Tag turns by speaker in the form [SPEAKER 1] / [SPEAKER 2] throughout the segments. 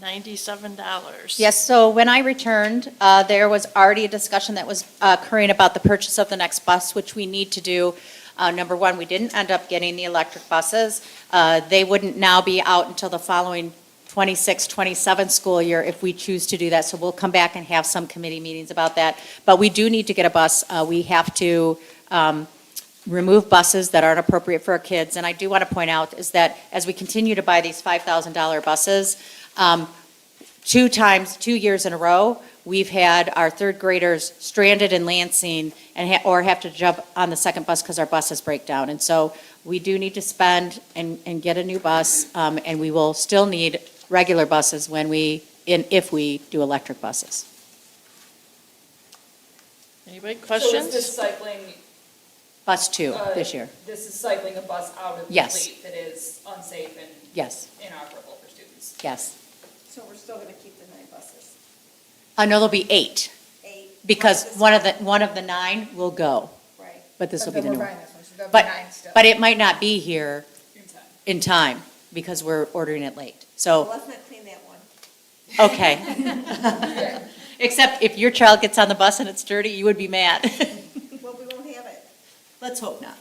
[SPEAKER 1] ninety-seven dollars.
[SPEAKER 2] Yes, so when I returned, uh, there was already a discussion that was uh, occurring about the purchase of the next bus, which we need to do. Uh, Number one, we didn't end up getting the electric buses. Uh, They wouldn't now be out until the following 26, 27 school year if we choose to do that. So we'll come back and have some committee meetings about that. But we do need to get a bus. Uh, We have to um, remove buses that aren't appropriate for our kids. And I do want to point out is that as we continue to buy these $5,000 buses, um, two times, two years in a row, we've had our third graders stranded in Lansing and, ha- or have to jump on the second bus because our buses break down. And so we do need to spend and, and get a new bus, um, and we will still need regular buses when we, in, if we do electric buses.
[SPEAKER 1] Anybody
[SPEAKER 3] So is this
[SPEAKER 1] questions?
[SPEAKER 3] cycling?
[SPEAKER 2] Bus two
[SPEAKER 3] uh,
[SPEAKER 2] this year,
[SPEAKER 3] This is cycling a bus out of the
[SPEAKER 2] Yes.
[SPEAKER 3] fleet that is unsafe and
[SPEAKER 2] yes,
[SPEAKER 3] inoperable for students.
[SPEAKER 2] yes.
[SPEAKER 4] So we're still gonna keep the nine buses?
[SPEAKER 2] Uh, no, there'll be eight,
[SPEAKER 4] Eight?
[SPEAKER 2] because
[SPEAKER 4] This-
[SPEAKER 2] one of the, one of the nine will go,
[SPEAKER 4] Right.
[SPEAKER 2] but this will be the new
[SPEAKER 4] But
[SPEAKER 2] one.
[SPEAKER 4] then we're buying this one, so there'll be
[SPEAKER 2] But,
[SPEAKER 4] nine still.
[SPEAKER 2] but it might not be here
[SPEAKER 3] In time.
[SPEAKER 2] in time, because we're ordering it late,
[SPEAKER 4] Well,
[SPEAKER 2] so.
[SPEAKER 4] Let's not clean that one.
[SPEAKER 2] Okay. Except if your child gets on the bus and it's dirty, you would be mad.
[SPEAKER 4] Well, we won't have it.
[SPEAKER 2] Let's hope not.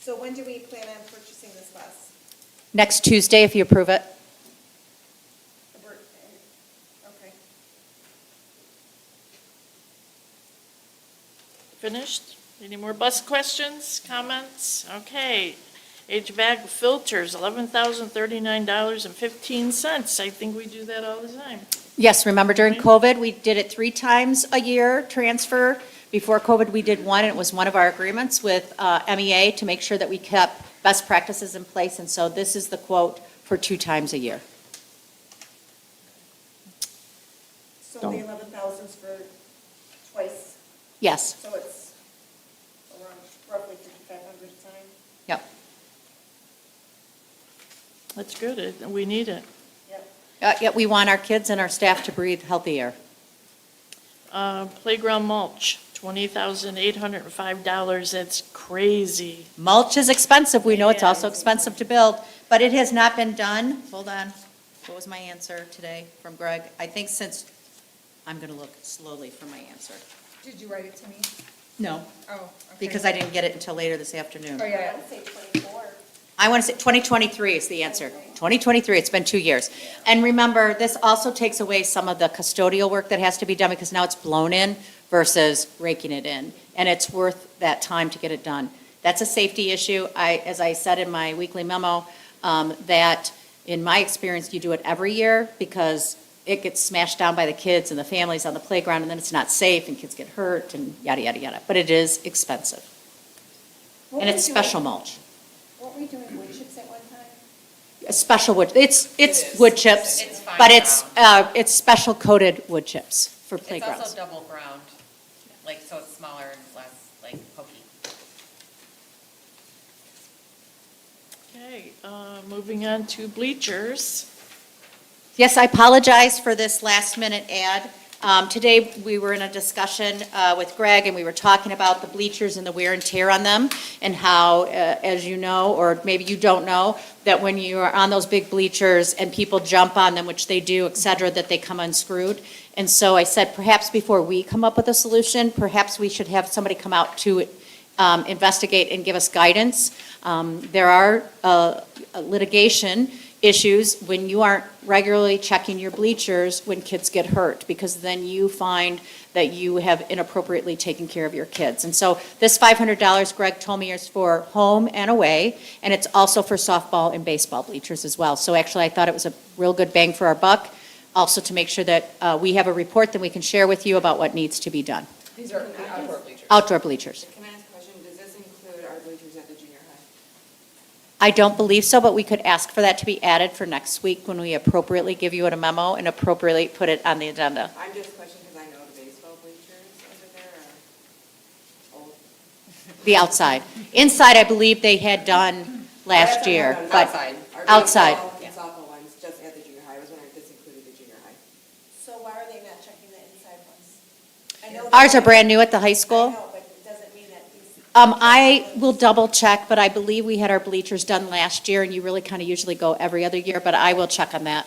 [SPEAKER 4] So when do we plan on purchasing this bus?
[SPEAKER 2] Next Tuesday, if you approve it.
[SPEAKER 4] We're- eh, Okay.
[SPEAKER 1] Finished? Any more bus questions, comments? Okay. H bag filters, eleven thousand thirty-nine dollars and fifteen cents. I think we do that all the time.
[SPEAKER 2] Yes, remember during COVID, we did it three times a year, transfer. Before COVID, we did one, and it was one of our agreements with uh, MEA to make sure that we kept best practices in place. And so this is the quote for two times a year.
[SPEAKER 4] So
[SPEAKER 2] Don't.
[SPEAKER 4] the eleven thousand's for twice,
[SPEAKER 2] Yes,
[SPEAKER 4] so it's around roughly fifty-five hundred a time?
[SPEAKER 2] yep,
[SPEAKER 1] That's good. It- We need it.
[SPEAKER 4] Yep.
[SPEAKER 2] Uh, Yet we want our kids and our staff to breathe healthy air.
[SPEAKER 1] Uh, playground mulch, twenty thousand eight hundred and five dollars. That's crazy.
[SPEAKER 2] Mulch is expensive, we know it's
[SPEAKER 1] It
[SPEAKER 2] also
[SPEAKER 1] is.
[SPEAKER 2] expensive to build, but it has not been done, hold on, what was my answer today from Greg? I think since, I'm gonna look slowly for my answer.
[SPEAKER 5] Did you write it to me?
[SPEAKER 2] No,
[SPEAKER 5] Oh, okay.
[SPEAKER 2] because I didn't get it until later this afternoon.
[SPEAKER 5] Oh,
[SPEAKER 4] I
[SPEAKER 5] yeah.
[SPEAKER 4] would say twenty-four.
[SPEAKER 2] I want to say 2023 is the answer. 2023, it's been two years. And remember, this also takes away some of the custodial work that has to be done because now it's blown in versus raking it in. And it's worth that time to get it done. That's a safety issue. I, as I said in my weekly memo, um, that in my experience, you do it every year because it gets smashed down by the kids and the families on the playground and then it's not safe and kids get hurt and yada, yada, yada. But it is expensive. And it's special mulch.
[SPEAKER 4] Weren't we doing wood chips at one time?
[SPEAKER 2] a special wood, it's,
[SPEAKER 3] It
[SPEAKER 2] it's
[SPEAKER 3] is.
[SPEAKER 2] wood chips,
[SPEAKER 3] It's fine
[SPEAKER 2] but it's, uh, it's special coated wood chips for
[SPEAKER 6] It's also
[SPEAKER 2] playgrounds.
[SPEAKER 6] double ground, like, so it's smaller and less, like, pokey.
[SPEAKER 1] Okay, uh, moving on to bleachers.
[SPEAKER 2] Yes, I apologize for this last-minute ad. Um, Today, we were in a discussion uh, with Greg, and we were talking about the bleachers and the wear and tear on them, and how, uh, as you know, or maybe you don't know, that when you are on those big bleachers and people jump on them, which they do, et cetera, that they come unscrewed. And so I said, perhaps before we come up with a solution, perhaps we should have somebody come out to um, investigate and give us guidance. Um, There are uh, litigation issues when you aren't regularly checking your bleachers when kids get hurt, because then you find that you have inappropriately taken care of your kids. And so this $500, Greg told me, is for home and away, and it's also for softball and baseball bleachers as well. So actually, I thought it was a real good bang for our buck, also to make sure that uh, we have a report that we can share with you about what needs to be done.
[SPEAKER 3] These are the outdoor bleachers.
[SPEAKER 2] Outdoor bleachers.
[SPEAKER 7] Can I ask a question? Does this include our bleachers at the junior high?
[SPEAKER 2] I don't believe so, but we could ask for that to be added for next week when we appropriately give you a memo and appropriately put it on the agenda.
[SPEAKER 7] I'm just questioning because I know the baseball bleachers over there are old.
[SPEAKER 2] The outside. Inside, I believe they had done last
[SPEAKER 7] Outside,
[SPEAKER 2] year,
[SPEAKER 7] no, no,
[SPEAKER 2] but.
[SPEAKER 7] Outside. Our
[SPEAKER 2] outside,
[SPEAKER 7] baseball and Softball ones, just at the junior high. I was wondering if this included the junior high.
[SPEAKER 4] So why are they not checking the inside ones? I know
[SPEAKER 2] Ours
[SPEAKER 4] that-
[SPEAKER 2] are brand new at the high
[SPEAKER 4] I
[SPEAKER 2] school.
[SPEAKER 4] know, but it doesn't mean that these.
[SPEAKER 2] Um, I will double check, but I believe we had our bleachers done last year, and you really kind of usually go every other year, but I will check on that.